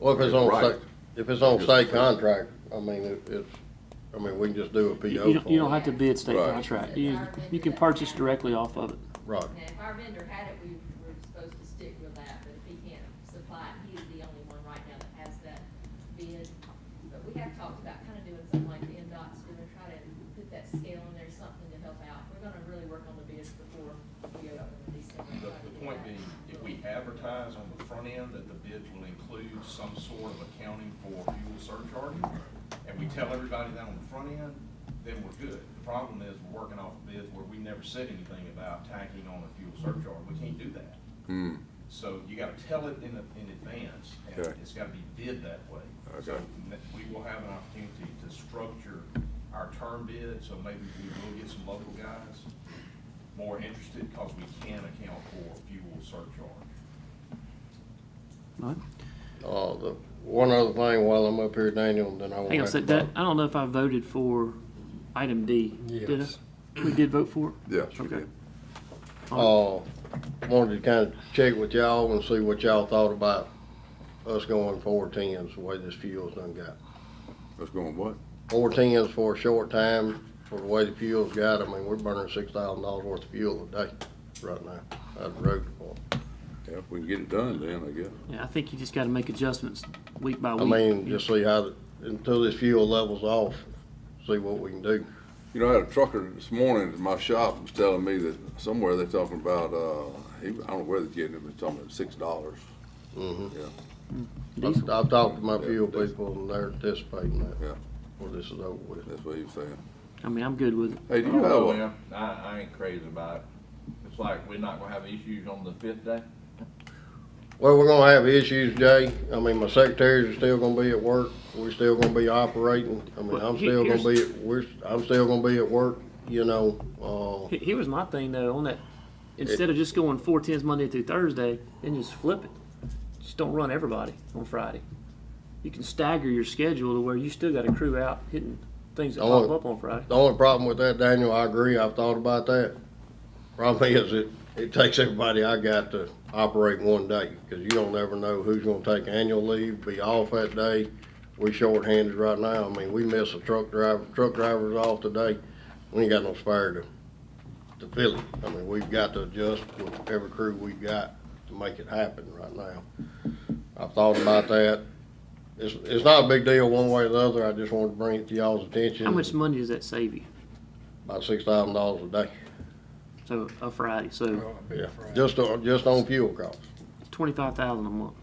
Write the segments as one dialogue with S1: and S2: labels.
S1: Well, if it's on
S2: Right.
S1: state, if it's on state contract, I mean, it- it's, I mean, we can just do a
S3: You
S1: PO
S3: you don't, you don't
S1: for it.
S3: have to bid state
S2: Right.
S3: contract. You, you can purchase directly off of it.
S1: Right.
S4: Now, if our vendor had it, we were supposed to stick with that, but if he can't supply it, he's the only one right now that has that bid. But we have talked about kind of doing something like the NDOT's gonna try to put that scale in there, something to help out. We're gonna really work on the bids before we open in December.
S5: The, the point being, if we advertise on the front end that the bids will include some sort of accounting for fuel surcharges, and we tell everybody that on the front end, then we're good. The problem is, we're working off bids where we never said anything about tacking on a fuel surcharge, we can't do that.
S2: Hmm,
S5: So you gotta tell it in, a- in advance, and
S2: Okay.
S5: it's gotta be bid that way. So
S2: Okay.
S5: n- We will have an opportunity to structure our term bid, so maybe we will get some local guys more interested, cause we can account for fuel surcharge.
S3: All right.
S1: Uh, the, one other thing while I'm up here, Daniel, then I won't
S3: Hang on,
S1: have
S3: a
S1: to.
S3: sec. that, I don't know if I voted for item D. Did
S6: Yes.
S3: I? We did vote for it?
S2: yeah, she
S3: Okay.
S2: did.
S1: Uh, wanted to kind of check with y'all and see what y'all thought about us going four tens, the way this fuel's done got.
S2: Let's go on what?
S1: Four tens for a short time, for the way the fuel's got, I mean, we're burning six thousand dollars worth of fuel a day right now, out of the road department.
S2: Yeah, if we can get it done then, I guess.
S3: Yeah, I think you just gotta make adjustments week by
S1: I
S3: week.
S1: mean,
S3: You-
S1: just see how, the- until this fuel levels off, see what we can do.
S2: You know, I had a trucker this morning at my shop was telling me that somewhere they're talking about, uh, he, I don't know where they're getting it, but it's talking about six dollars.
S1: Mhm.
S2: Yeah,
S3: Diesel.
S1: I've, I've talked to my fuel people and they're anticipating that.
S2: Yeah.
S1: Well, this is over with.
S2: that's what he was saying.
S3: I mean, I'm good with it.
S2: Hey, do
S7: I
S2: you
S7: don't know,
S1: Oh,
S2: have a,
S7: man. Oh, I, I ain't crazy about it. It's like we're not gonna have issues on the fifth day.
S1: Well, we're gonna have issues, Jay. I mean, my secretaries are still gonna be at work. We're still gonna be operating. I mean,
S3: Well,
S1: I'm
S3: he-
S1: still gonna
S3: here's-
S1: be, at- we're, I'm still gonna be at work, you know, uh,
S3: He- Here was my thing though, on that, instead of just going four tens Monday through Thursday, then just flip it. Just don't run everybody on Friday. You can stagger your schedule to where you still got a crew out hitting things that
S1: Oh.
S3: pop up on Friday.
S1: the only problem with that, Daniel, I agree. I've thought about that. Problem is, it, it takes everybody I got to operate one day, cause you don't ever know who's gonna take annual leave, be off that day. We shorthanded right now. I mean, we miss a truck driver, truck driver's off today. We ain't got no spare to to fill it. I mean, we've got to adjust with every crew we've got to make it happen right now. I've thought about that. It's, it's not a big deal one way or the other. I just wanted to bring it to y'all's attention.
S3: How much money does that save you?
S1: About six thousand dollars a day.
S3: So, a Friday, so
S6: Well, it'd be Friday.
S1: Just on, just on fuel costs.
S3: twenty-five thousand a month.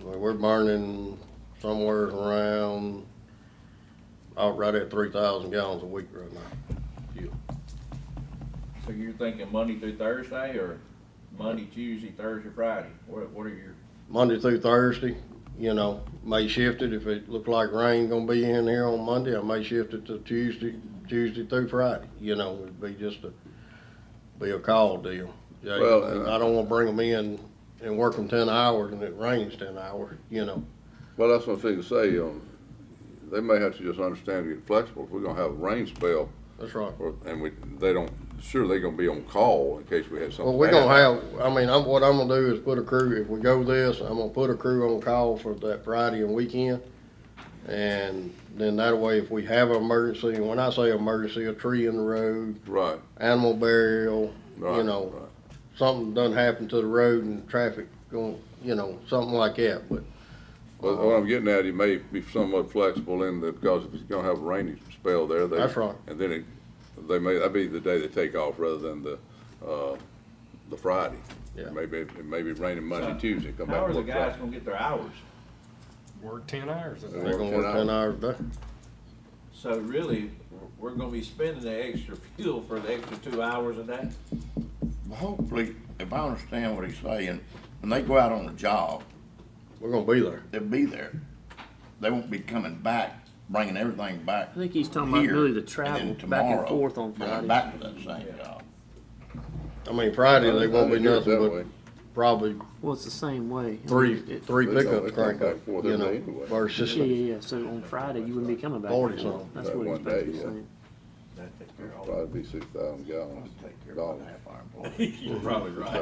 S1: I mean, we're burning somewhere around, out right at three thousand gallons a week right now.
S7: So you're thinking Monday through Thursday or Monday, Tuesday, Thursday, Friday? What, what are your?
S1: Monday through Thursday, you know, may shift it if it look like rain gonna be in here on Monday, I may shift it to Tuesday, Tuesday through Friday, you know, it'd be just a, be a call deal. Yeah,
S2: Well, and-
S1: I don't wanna bring them in and work them ten hours and it rains ten hours, you know.
S2: well, that's one thing to say, um, they may have to just understand to get flexible. If we're gonna have a rain spell,
S1: That's right.
S2: or, and we, they don't, sure, they're gonna be on call in case we have something.
S1: Well, we're gonna
S2: bad.
S1: have, I mean, I'm, what I'm gonna do is put a crew, if we go this, I'm gonna put a crew on call for that Friday and weekend. And then that way, if we have an emergency, and when I say emergency, a tree in the road,
S2: Right,
S1: animal burial,
S2: right,
S1: you know,
S2: right.
S1: something done happened to the road and traffic going, you know, something like that, but
S2: Well, what I'm getting at, it may be somewhat flexible in that, because if it's gonna have a rainy spell there, they.
S1: That's right.
S2: And then it, they may, that'd be the day they take off rather than the, uh, the Friday.
S1: Yeah.
S2: Maybe, it may be raining Monday, Tuesday, come back.
S7: How are the
S2: work
S7: guys
S2: Friday.
S7: gonna get their hours?
S6: Work ten hours a
S1: they're
S6: day.
S1: gonna work ten hours a day.
S7: So really, we're gonna be spending the extra fuel for the extra two hours a day?
S8: Hopefully, if I understand what he's saying, when they go out on a job,
S1: We're gonna be there.
S8: they'll be there. They won't be coming back, bringing everything back.
S3: I think he's talking about really the travel back and forth on
S8: Friday.
S3: Fridays.
S8: Back to that same job.
S1: I mean, Friday,
S2: Well,
S1: they won't be
S2: they do it
S1: nothing
S2: that
S1: but
S2: way.
S1: probably
S3: Well, it's the same way. I mean,
S1: three,
S3: it-
S1: three
S2: They don't-
S1: pickups
S2: they don't
S1: crank
S2: back
S1: up,
S2: and forth
S1: you
S2: every
S1: know,
S2: day anyway.
S1: versus.
S3: Yeah, yeah, yeah. So on Friday, you wouldn't be coming back.
S1: Forty something.
S3: That's
S2: That
S3: what he's
S2: one day,
S3: basically
S2: yeah.
S3: saying.
S7: That'd take care of all that.
S2: Probably be six thousand gallons.
S8: Take care of
S2: dollars.
S8: half our employees.
S7: You're probably right.